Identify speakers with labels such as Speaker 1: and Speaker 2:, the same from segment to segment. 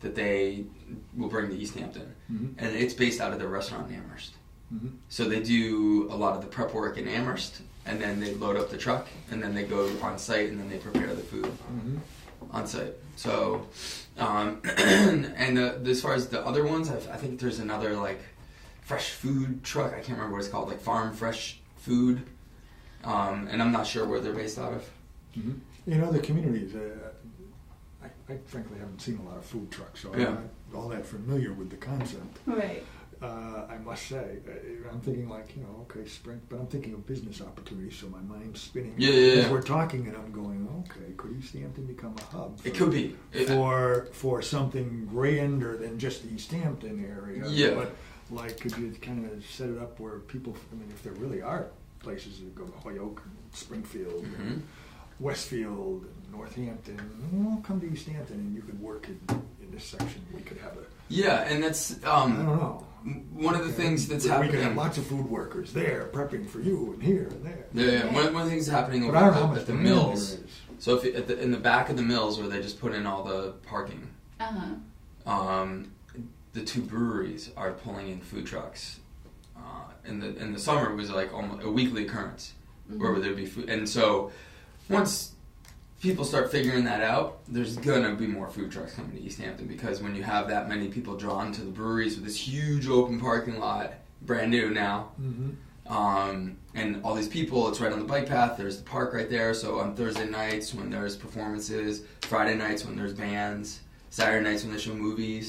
Speaker 1: that they will bring to East Hampton,
Speaker 2: Mhm.
Speaker 1: and it's based out of their restaurant in Amherst.
Speaker 2: Mhm.
Speaker 1: So they do a lot of the prep work in Amherst, and then they load up the truck, and then they go on site, and then they prepare the food
Speaker 2: Mhm.
Speaker 1: on site. So, um, and the, as far as the other ones, i I think there's another like fresh food truck. I can't remember what it's called, like Farm Fresh Food, um, and I'm not sure where they're based out of.
Speaker 2: Mhm. In other communities, uh, I, I frankly haven't seen a lot of food trucks, so
Speaker 1: Yeah.
Speaker 2: I'm not all that familiar with the concept.
Speaker 3: Right.
Speaker 2: Uh, I must say, uh, I'm thinking like you know, okay, spring, but I'm thinking of business opportunities, so my mind's spinning.
Speaker 1: Yeah, yeah,
Speaker 2: As
Speaker 1: yeah.
Speaker 2: we're talking, and I'm going, okay, could East Hampton become a hub?
Speaker 1: It could be. It-
Speaker 2: for for something grander than just the East Hampton area.
Speaker 1: Yeah.
Speaker 2: But like, could you kind of set it up where people? I mean, if there really are places that go to Hoyoke, and Springfield,
Speaker 1: Mhm.
Speaker 2: and Westfield, and Northampton, well, come to East Hampton, and you could work in, in this section. We could have a.
Speaker 1: Yeah, and that's
Speaker 2: I
Speaker 1: um,
Speaker 2: don't know.
Speaker 1: one of the things that's
Speaker 2: we,
Speaker 1: happening.
Speaker 2: We could have lots of food workers there prepping for you, and here and there.
Speaker 1: yeah, yeah. One, one of the things that's happening
Speaker 2: But
Speaker 1: over
Speaker 2: I don't
Speaker 1: at
Speaker 2: know how
Speaker 1: the-
Speaker 2: much
Speaker 1: at the
Speaker 2: demand there
Speaker 1: mills.
Speaker 2: is.
Speaker 1: So if you- at the, in the back of the mills where they just put in all the parking,
Speaker 3: Uh huh.
Speaker 1: um, the two breweries are pulling in food trucks. Uh, in the in the summer, it was like almost a weekly occurrence
Speaker 3: Mm-hmm.
Speaker 2: Mm-hmm.
Speaker 1: where there'd be food. And so once people start figuring that out, there's gonna be more food trucks coming to East Hampton because when you have that many people drawn to the breweries with this huge open parking lot, brand new now,
Speaker 2: Mhm.
Speaker 1: um, and all these people. It's right on the bike path. There's the park right there. So on Thursday nights when there's performances, Friday nights when there's bands, Saturday nights when they show movies.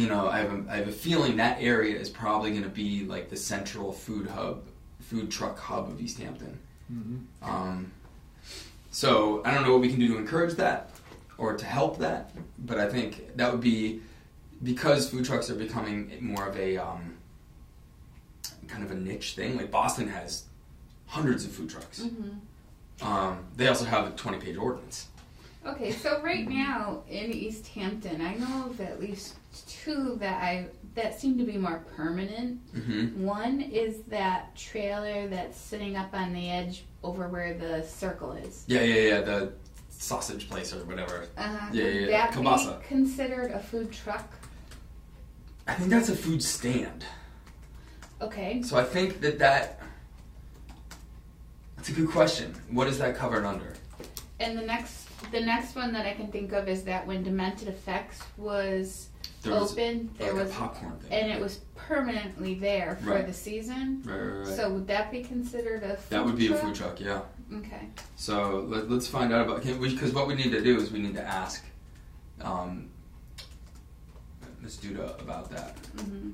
Speaker 1: You know, I have a, I have a feeling that area is probably going to be like the central food hub, food truck hub of East Hampton.
Speaker 2: Mhm.
Speaker 1: Um, so I don't know what we can do to encourage that or to help that, but I think that would be because food trucks are becoming more of a um, kind of a niche thing. Like Boston has hundreds of food trucks.
Speaker 3: Mm-hmm.
Speaker 1: Um, they also have a twenty-page ordinance.
Speaker 3: Okay, so right now in East Hampton, I know of at least two that I that seem to be more permanent.
Speaker 1: Mm-hmm.
Speaker 3: One is that trailer that's sitting up on the edge over where the circle is.
Speaker 1: Yeah, yeah, yeah. The sausage place or whatever.
Speaker 3: Uh,
Speaker 1: Yeah, yeah,
Speaker 3: would
Speaker 1: yeah,
Speaker 3: That
Speaker 1: kielbasa.
Speaker 3: be considered a food truck.
Speaker 1: I think that's a food stand.
Speaker 3: Okay.
Speaker 1: So I think that that. That's a good question. What is that covered under?
Speaker 3: And the next the next one that I can think of is that when Demented Effects was
Speaker 1: There was
Speaker 3: open, there
Speaker 1: like
Speaker 3: was
Speaker 1: a popcorn thing.
Speaker 3: and it was permanently there for
Speaker 1: Right.
Speaker 3: the season.
Speaker 1: Right, right, right.
Speaker 3: So would that be considered a food
Speaker 1: that would be
Speaker 3: truck?
Speaker 1: a food truck, yeah.
Speaker 3: Okay.
Speaker 1: So let, let's find out about because what we need to do is we need to ask um, Ms. Duda about that
Speaker 3: hmm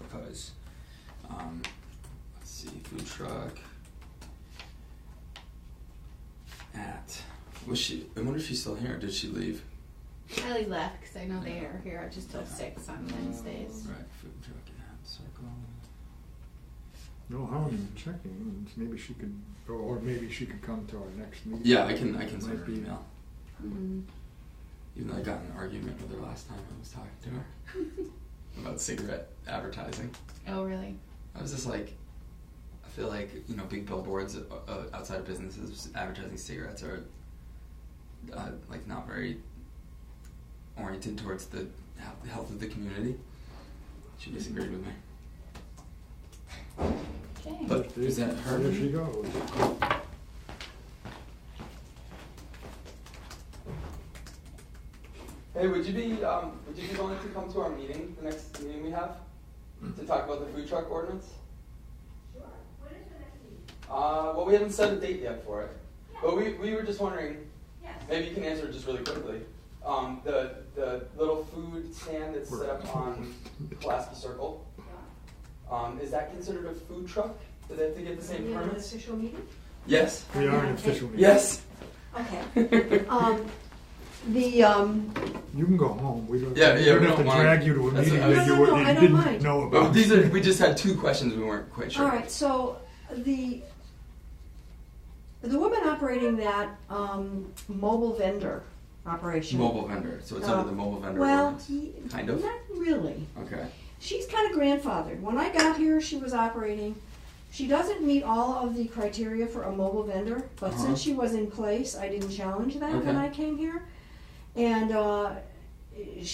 Speaker 1: because um, let's see, food truck at was she? I wonder if she's still here. Did she leave?
Speaker 3: Kylie left because I know they are here just till six on
Speaker 1: Oh,
Speaker 3: Wednesdays.
Speaker 1: Right, food truck at Circle.
Speaker 2: No harm in checking. Maybe she could, or, or maybe she could come to our next meeting.
Speaker 1: Yeah, I can I can
Speaker 2: Might
Speaker 1: send her an
Speaker 2: be-
Speaker 1: email.
Speaker 3: hmm
Speaker 1: Even though I got in an argument with her last time I was talking to her about cigarette advertising.
Speaker 3: Mm-hmm. Oh really?
Speaker 1: I was just like, I feel like you know, big billboards uh, uh, outside of businesses advertising cigarettes are uh, like not very oriented towards the he- health of the community. She disagreed with me.
Speaker 3: Okay.
Speaker 1: But is that her?
Speaker 2: There she goes.
Speaker 1: Hey, would you be um, would you be willing to come to our meeting, the next meeting we have, to talk about the food truck ordinance? Uh, well, we haven't set a date yet for it, but we, we were just wondering. Maybe you can answer just really quickly. Um, the the little food stand that's set up on Pulaski Circle. Um, is that considered a food truck? Do they have to get the same
Speaker 4: We have an
Speaker 1: permits?
Speaker 4: official meeting?
Speaker 1: Yes.
Speaker 2: We are an
Speaker 4: Okay.
Speaker 2: official meeting.
Speaker 1: Yes.
Speaker 4: Okay.
Speaker 1: yeah,
Speaker 4: Um, the, um,
Speaker 2: You can go home. We don't,
Speaker 1: Yeah,
Speaker 2: we
Speaker 1: yeah,
Speaker 2: don't
Speaker 1: we
Speaker 2: have
Speaker 1: don't
Speaker 2: to
Speaker 1: mind.
Speaker 2: drag you to a
Speaker 1: That's
Speaker 2: meeting
Speaker 1: what I
Speaker 2: that
Speaker 1: was-
Speaker 2: you,
Speaker 4: No, no,
Speaker 2: were,
Speaker 4: no,
Speaker 2: you
Speaker 4: I don't
Speaker 2: didn't
Speaker 4: mind.
Speaker 2: know about.
Speaker 1: Well, these are we just had two questions we weren't quite sure.
Speaker 4: all right, so the, the woman operating that, um, mobile vendor operation.
Speaker 1: Mobile vendor. So it's under
Speaker 4: Uh,
Speaker 1: the mobile vendor.
Speaker 4: Well,
Speaker 1: ordinance.
Speaker 4: he-
Speaker 1: Kind of.
Speaker 4: Not really.
Speaker 1: Okay.
Speaker 4: She's kind of grandfathered. When I got here, she was operating. She doesn't meet all of the criteria for a mobile vendor, but
Speaker 1: Uh-huh.
Speaker 4: since she was in place, I didn't challenge that when
Speaker 1: Okay.
Speaker 4: I came here. And, uh,